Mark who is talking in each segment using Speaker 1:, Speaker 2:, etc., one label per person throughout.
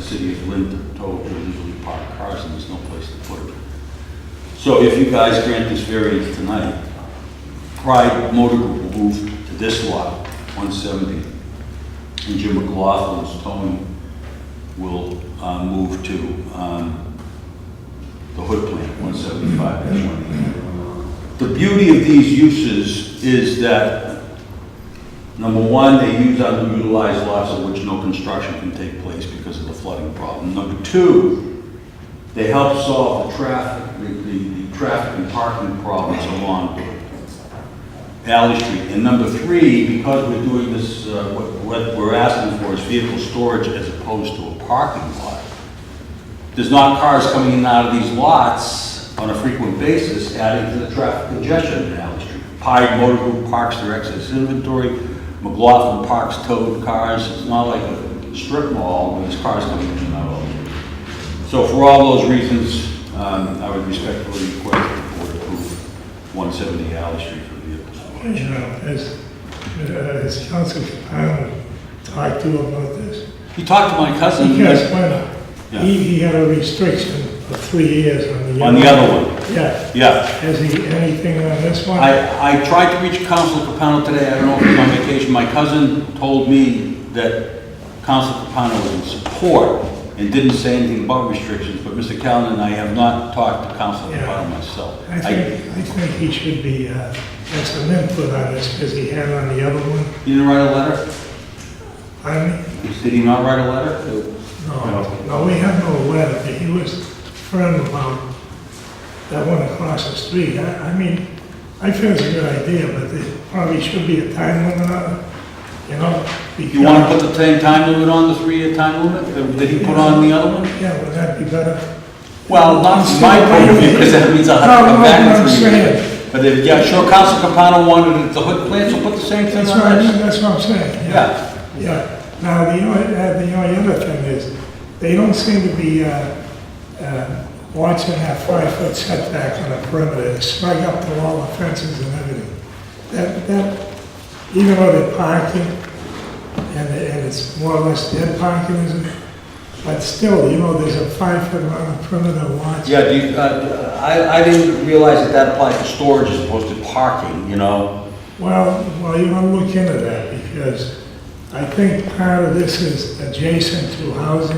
Speaker 1: city of Linden told to illegally park cars and there's no place to put them. So if you guys grant this variance tonight, Pride Motor Group will move to this lot, 170, and Jim McLaughlin's Tony will uh, move to um, the hood plant, 175-1. The beauty of these uses is that, number one, they use underutilized lots of which no construction can take place because of the flooding problem. Number two, they help solve the traffic, the- the the traffic and parking problems along Valley Street. And number three, because we're doing this, uh, what what we're asking for is vehicle storage as opposed to a parking lot. There's not cars coming in and out of these lots on a frequent basis, adding to the traffic congestion in Valley Street. Pie Motor Group parks their excess inventory, McLaughlin parks towed cars. It's not like a strip mall where there's cars coming in and out all the time. So for all those reasons, um, I would respectfully request the board approve 170 Alley Street for vehicle storage.
Speaker 2: You know, has, uh, has Council Capano talked to him about this?
Speaker 1: He talked to my cousin
Speaker 2: Yes, why
Speaker 1: Yeah.
Speaker 2: not? He, he had a restriction of three years on the.
Speaker 1: on the other one.
Speaker 2: Yeah,
Speaker 1: Yeah.
Speaker 2: has he, anything on this one?
Speaker 1: I, I tried to reach Council Capano today, I don't know if he's on vacation. My cousin told me that Council Capano was in support and didn't say anything about restrictions, but Mr. Callen and I have not talked to Council
Speaker 2: Yeah.
Speaker 1: Capano myself.
Speaker 2: I think, I think he should be, uh, had some input on this, because he had on the other one,
Speaker 1: He didn't write a letter?
Speaker 2: I mean,
Speaker 1: Did he not write a letter?
Speaker 2: no, no, we have no letter, but he was firm about that one across the street, I, I mean, I feel it's a good idea, but there probably should be a time limit on it, you know?
Speaker 1: You want to put the same time limit on, the three-year time limit? Did he put on the other one?
Speaker 2: Yeah, would that be better?
Speaker 1: Well, not from my point of view, because that means I'll have to come
Speaker 2: No, no,
Speaker 1: back
Speaker 2: no,
Speaker 1: in three
Speaker 2: I'm
Speaker 1: years. But if, yeah, sure, Council Capano wanted it at the hood plant, so put the same thing
Speaker 2: That's
Speaker 1: on
Speaker 2: what, I-
Speaker 1: that.
Speaker 2: that's what I'm saying, yeah.
Speaker 1: Yeah.
Speaker 2: Yeah, now, the only, uh, the only other thing is, they don't seem to be, uh, uh, watching that five-foot setback on the perimeter, it's strung up to all the fences and everything. That, that, even though they're parking, and, and it's more or less dead parking, isn't it? But still, you know, there's a five-foot around the perimeter watch.
Speaker 1: Yeah, do you, uh, I, I didn't realize that that applied to storage as opposed to parking, you know?
Speaker 2: Well, well, you want to look into that, because I think part of this is adjacent to housing,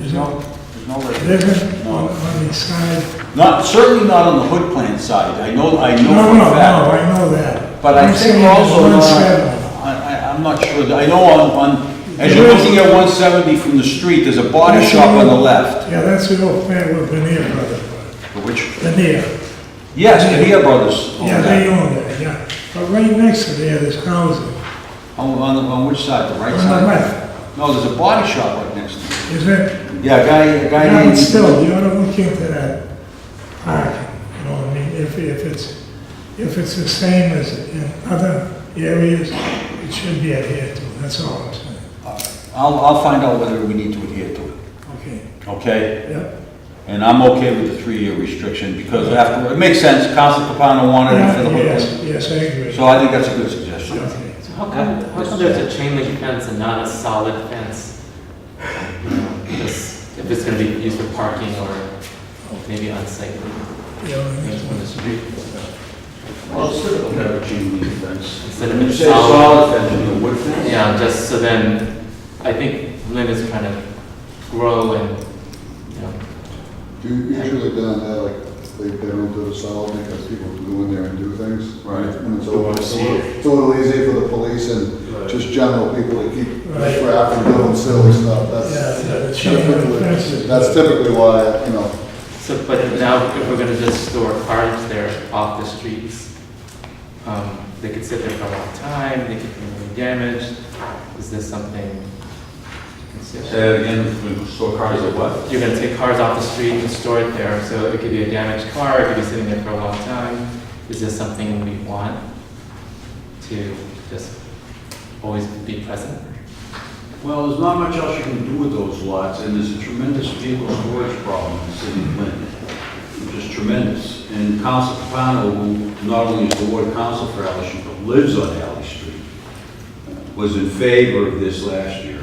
Speaker 2: you know?
Speaker 1: There's no way.
Speaker 2: living on, on the side.
Speaker 1: Not, certainly not on the hood plant side, I know, I know
Speaker 2: No, no,
Speaker 1: for
Speaker 2: no,
Speaker 1: a fact.
Speaker 2: I know that.
Speaker 1: But I
Speaker 2: I'm
Speaker 1: think
Speaker 2: saying
Speaker 1: also,
Speaker 2: one
Speaker 1: not-
Speaker 2: seven.
Speaker 1: I, I, I'm not sure, that- I know on, on, as you're looking at one seventy from the street, there's a body
Speaker 2: That's
Speaker 1: shop on the
Speaker 2: old-
Speaker 1: left.
Speaker 2: Yeah, that's the old plan with Veneer Brothers,
Speaker 1: Which,
Speaker 2: Veneer.
Speaker 1: yes, Cahia Brothers owned
Speaker 2: Yeah, they
Speaker 1: that.
Speaker 2: own that, yeah. But right next to there, there's housing,
Speaker 1: On, on, the- on which side, the
Speaker 2: on
Speaker 1: right
Speaker 2: the
Speaker 1: side?
Speaker 2: left,
Speaker 1: No, there's a body shop right next to it.
Speaker 2: is it?
Speaker 1: Yeah, a guy, a guy
Speaker 2: Yeah,
Speaker 1: named.
Speaker 2: but still, you ought to look into that parking, you know what I mean? If, if it's, if it's the same as in other areas, it should be adhered to, that's all I'm saying.
Speaker 1: I'll, I'll find out whether we need to adhere to it,
Speaker 2: Okay,
Speaker 1: okay?
Speaker 2: yeah.
Speaker 1: And I'm okay with the three-year restriction, because after, it makes sense, Council Capano wanted it for the hood
Speaker 2: Yes,
Speaker 1: plant.
Speaker 2: yes, I agree.
Speaker 1: So I think that's a good suggestion.
Speaker 2: Okay.
Speaker 3: How come, how come there's a chain link fence and not a solid fence? You know, Just, if it's gonna be used for parking or maybe unsightly,
Speaker 2: Yeah, I
Speaker 3: things
Speaker 2: understand.
Speaker 3: on the street.
Speaker 1: Well, it's sort of a chain link fence.
Speaker 3: Instead of a solid,
Speaker 1: fence, you mean a wood fence?
Speaker 3: yeah, just so then, I think Lynn is trying to grow and, you know,
Speaker 4: You Usually down there, like, they, they don't do the solid because people go in there and do things.
Speaker 1: Right.
Speaker 4: And it's a
Speaker 5: Don't
Speaker 4: little,
Speaker 5: wanna
Speaker 4: it's a
Speaker 5: see
Speaker 4: little-
Speaker 5: it.
Speaker 4: it's a little easier for the police and
Speaker 5: Right.
Speaker 4: just general people to keep
Speaker 2: Right.
Speaker 4: crap and doing silly stuff. That's
Speaker 2: Yeah, the chain link fence.
Speaker 4: typically, that's typically why, you know,
Speaker 3: so, but now if we're gonna just store cars there off the streets, um, they could sit there for a long time, they could be really damaged, is this something to consider?
Speaker 1: Say that again, so cars are what?
Speaker 3: You're gonna take cars off the street and store it there, so it could be a damaged car, it could be sitting there for a long time. Is this something we want to just always be present?
Speaker 1: Well, there's not much else you can do with those lots, and there's a tremendous vehicle storage problem in the city of Lynn, which is tremendous. And Council Capano, who not only is the ward council for Alley Street, but lives on Alley Street, was in favor of this last year, uh,